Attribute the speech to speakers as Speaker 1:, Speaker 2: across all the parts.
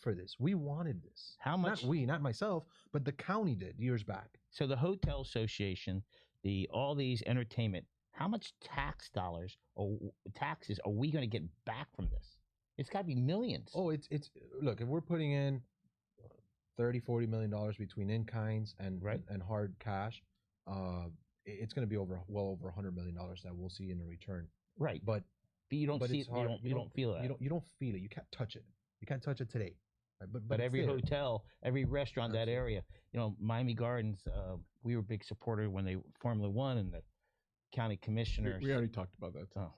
Speaker 1: for this. We wanted this.
Speaker 2: How much?
Speaker 1: Not we, not myself, but the county did years back.
Speaker 2: so the hotel association, the all these entertainment. How much tax dollars or taxes are we going to get back from this? It's got to be millions.
Speaker 1: Oh, it's it's look, if we're putting in 30 40 million dollars between in kinds and
Speaker 2: Right.
Speaker 1: and hard cash, uh it- it's going to be over well over 100 million dollars that we'll see in return.
Speaker 2: right, but,
Speaker 1: But
Speaker 2: you don't
Speaker 1: but
Speaker 2: see
Speaker 1: it's
Speaker 2: it. You
Speaker 1: hard.
Speaker 2: don't,
Speaker 1: You
Speaker 2: you
Speaker 1: don't-
Speaker 2: don't feel that.
Speaker 1: you don't you don't feel it. You can't touch it. You can't touch it today. Right? But
Speaker 2: but,
Speaker 1: it's
Speaker 2: every
Speaker 1: there.
Speaker 2: hotel, every restaurant, that
Speaker 1: Absolutely.
Speaker 2: area, you know, Miami Gardens, uh, we were a big supporter when they Formula One and the county
Speaker 3: We,
Speaker 2: commissioners.
Speaker 3: we already talked about that.
Speaker 2: Oh.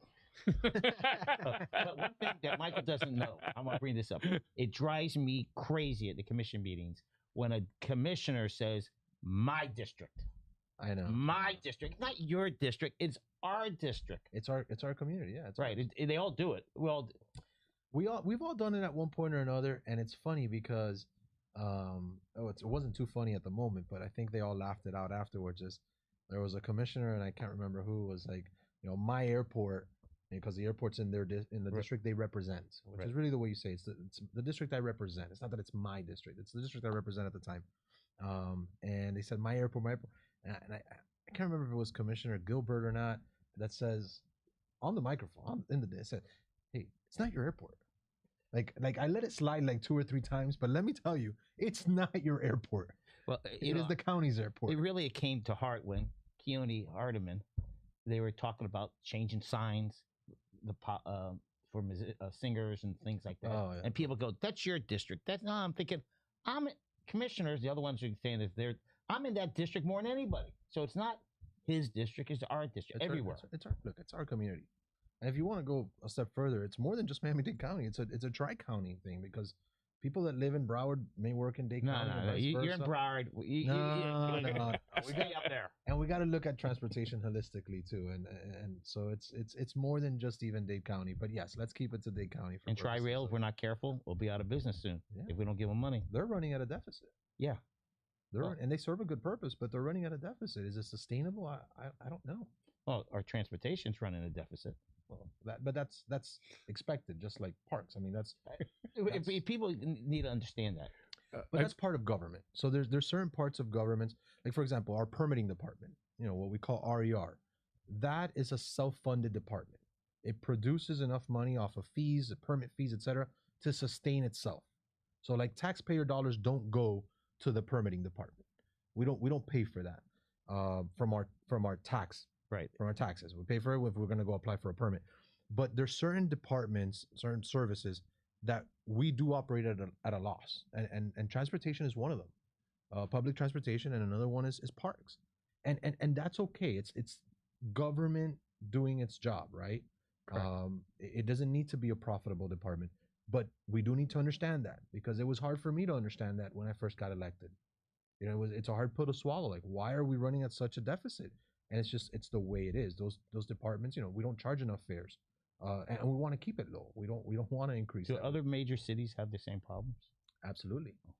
Speaker 1: Oh.
Speaker 2: but one thing that Michael doesn't know, I'm gonna bring this up. It drives me crazy at the commission meetings when a commissioner says, "My district,
Speaker 1: I know.
Speaker 3: Mm.
Speaker 2: my district, not your district. It's our district."
Speaker 1: It's our it's our community. Yeah, it's
Speaker 2: Right? It, it- they all do it. Well,
Speaker 1: we all we've all done it at one point or another and it's funny because um oh it's, it wasn't too funny at the moment but i think they all laughed it out afterwards is there was a commissioner and i can't remember who was like you know my airport because the airport's in their dis- in the
Speaker 2: Right.
Speaker 1: district they represent which
Speaker 2: Right.
Speaker 1: is really the way you say it. it's the, it's the district i represent it's not that it's my district it's the district i represent at the time um and they said my airport my airport and I, and I, I can't remember if it was commissioner gilbert or not that says on the microphone on, in the it said hey, it's not your airport. Like, like I let it slide like two or three times, but let me tell you, it's not your airport.
Speaker 2: well,
Speaker 1: It is the county's airport.
Speaker 2: It really came to heart when Keone Hardeman, they were talking about changing signs, the po- uh, for musi- uh, singers and things like that.
Speaker 1: Oh, yeah.
Speaker 2: And people go, "That's your district." That's no. I'm thinking, I'm in- commissioners. The other ones are saying that they're, I'm in that district more than anybody. So it's not his district; it's our district
Speaker 1: It's our-
Speaker 2: everywhere.
Speaker 1: it's- it's our look. It's our community. And if you want to go a step further, it's more than just Miami-Dade County. It's a it's a tri-county thing because people that live in Broward may work in Dade
Speaker 2: no,
Speaker 1: County.
Speaker 2: no,
Speaker 1: and
Speaker 2: no.
Speaker 1: vice
Speaker 2: You, are in
Speaker 1: versa.
Speaker 2: Broward. You- you- you-
Speaker 1: No,
Speaker 2: you-
Speaker 1: no, no.
Speaker 2: Stay up there.
Speaker 1: and we got to look at transportation holistically too, and and so it's it's it's more than just even Dade County. But yes, let's keep it to Dade County. For
Speaker 2: And Tri
Speaker 1: purposes
Speaker 2: Rail,
Speaker 1: of-
Speaker 2: if we're not careful, we'll be out of business soon
Speaker 1: Yeah.
Speaker 2: if we don't give them money.
Speaker 1: they're running at a deficit.
Speaker 2: Yeah.
Speaker 1: They're
Speaker 2: Well-
Speaker 1: run- and they serve a good purpose, but they're running at a deficit. Is it sustainable? I I, I don't know.
Speaker 2: Well, Oh, our transportation's running a deficit.
Speaker 1: Well, that but that's that's expected, just like parks. I mean, that's
Speaker 2: If,
Speaker 1: That's-
Speaker 2: if people n- need to understand that,
Speaker 3: Uh,
Speaker 1: but
Speaker 3: I-
Speaker 1: that's part of government. So there's there's certain parts of governments, like for example, our permitting department. You know what we call RER. That is a self-funded department. It produces enough money off of fees, the permit fees, etc., to sustain itself. So like taxpayer dollars don't go to the permitting department. We don't we don't pay for that uh, from our from our tax
Speaker 2: Right.
Speaker 1: from our taxes. We pay for it if we're going to go apply for a permit. But there's certain departments, certain services that we do operate at a, at a loss, and, and and transportation is one of them, uh, public transportation, and another one is is parks, and and and that's okay. It's it's government doing its job, right?
Speaker 2: Correct.
Speaker 1: Um, it it doesn't need to be a profitable department, but we do need to understand that because it was hard for me to understand that when I first got elected. You know, it was it's a hard pill to swallow. Like, why are we running at such a deficit? And it's just it's the way it is. Those those departments, you know, we don't charge enough fares, uh, and, and we want to keep it low. We don't we don't want to increase.
Speaker 2: do
Speaker 1: that.
Speaker 2: other major cities have the same problems?
Speaker 1: Absolutely.
Speaker 3: Oh.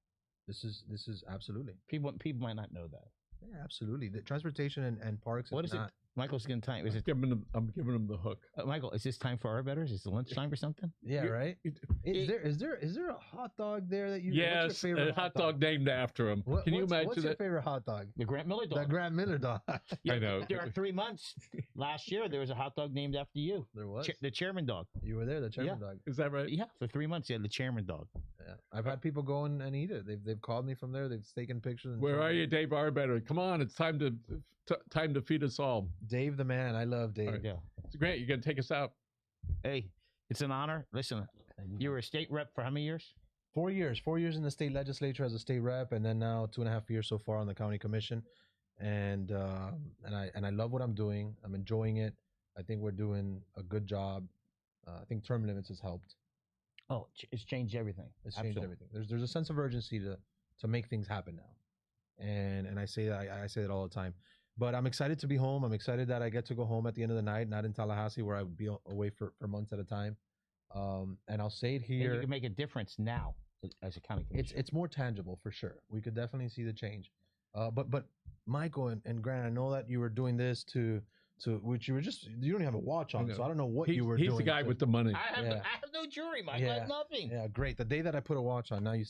Speaker 1: This is this is absolutely
Speaker 2: People people might not know that.
Speaker 1: yeah, absolutely the transportation and, and parks.
Speaker 2: What is
Speaker 1: not,
Speaker 2: it? Michael's getting time. Is
Speaker 3: I'm
Speaker 2: it
Speaker 3: giving them, I'm giving them the hook.
Speaker 2: uh, Michael? Is this time for our betters? Is it lunchtime or something?
Speaker 1: Yeah,
Speaker 3: You-
Speaker 1: right.
Speaker 3: it-
Speaker 1: Is
Speaker 3: it-
Speaker 1: there is there is there a hot dog there that you?
Speaker 3: yes, a hot dog named after him.
Speaker 1: What-
Speaker 3: Can you
Speaker 1: what's-
Speaker 3: imagine
Speaker 1: what's your
Speaker 3: that?
Speaker 1: favorite hot dog?
Speaker 2: The Grant Miller
Speaker 1: The
Speaker 2: dog.
Speaker 1: Grant Miller dog.
Speaker 3: I know.
Speaker 2: There are three months last year. There was a hot dog named after you,
Speaker 1: there was.
Speaker 2: Cha- the chairman dog.
Speaker 1: You were there, the chairman dog.
Speaker 3: Is that right?
Speaker 2: Yeah, for three months you had the chairman dog.
Speaker 1: Yeah. I've had people go in and eat it. They've they've called me from there. They've taken pictures. And
Speaker 3: Where
Speaker 1: shown
Speaker 3: are
Speaker 1: me.
Speaker 3: you, Dave Arbetter? Come on, it's time to t- time to feed us all.
Speaker 1: Dave the man. I love Dave.
Speaker 3: right.
Speaker 2: Yeah.
Speaker 3: Grant, you're gonna take us out.
Speaker 2: Hey, it's an honor. Listen, you were a state rep for how many years?
Speaker 1: Four years, four years in the state legislature as a state rep, and then now two and a half years so far on the county commission, and uh, and I and I love what I'm doing. I'm enjoying it. I think we're doing a good job. Uh, I think term limits has helped.
Speaker 2: Oh, ch- it's changed everything.
Speaker 1: It's changed
Speaker 2: Absolutely.
Speaker 1: everything. There's there's a sense of urgency to to make things happen now, and and I say that I, I say that all the time. But I'm excited to be home. I'm excited that I get to go home at the end of the night, not in Tallahassee where I would be a- away for, for months at a time. Um, and I'll say it
Speaker 2: And
Speaker 1: here.
Speaker 2: you can make a difference now as a county commissioner.
Speaker 1: it's it's more tangible for sure. We could definitely see the change. Uh, but but Michael and, and Grant, I know that you were doing this to So which you were just you don't even have a watch on,
Speaker 3: I know.
Speaker 1: so I don't know what
Speaker 3: he's,
Speaker 1: you were
Speaker 3: he's
Speaker 1: doing.
Speaker 3: the guy
Speaker 1: to-
Speaker 3: with the money.
Speaker 2: I have,
Speaker 1: Yeah.
Speaker 2: I have no jury, Mike. I have
Speaker 1: Yeah.
Speaker 2: nothing.
Speaker 1: Yeah, great. The day that I put a watch on, now you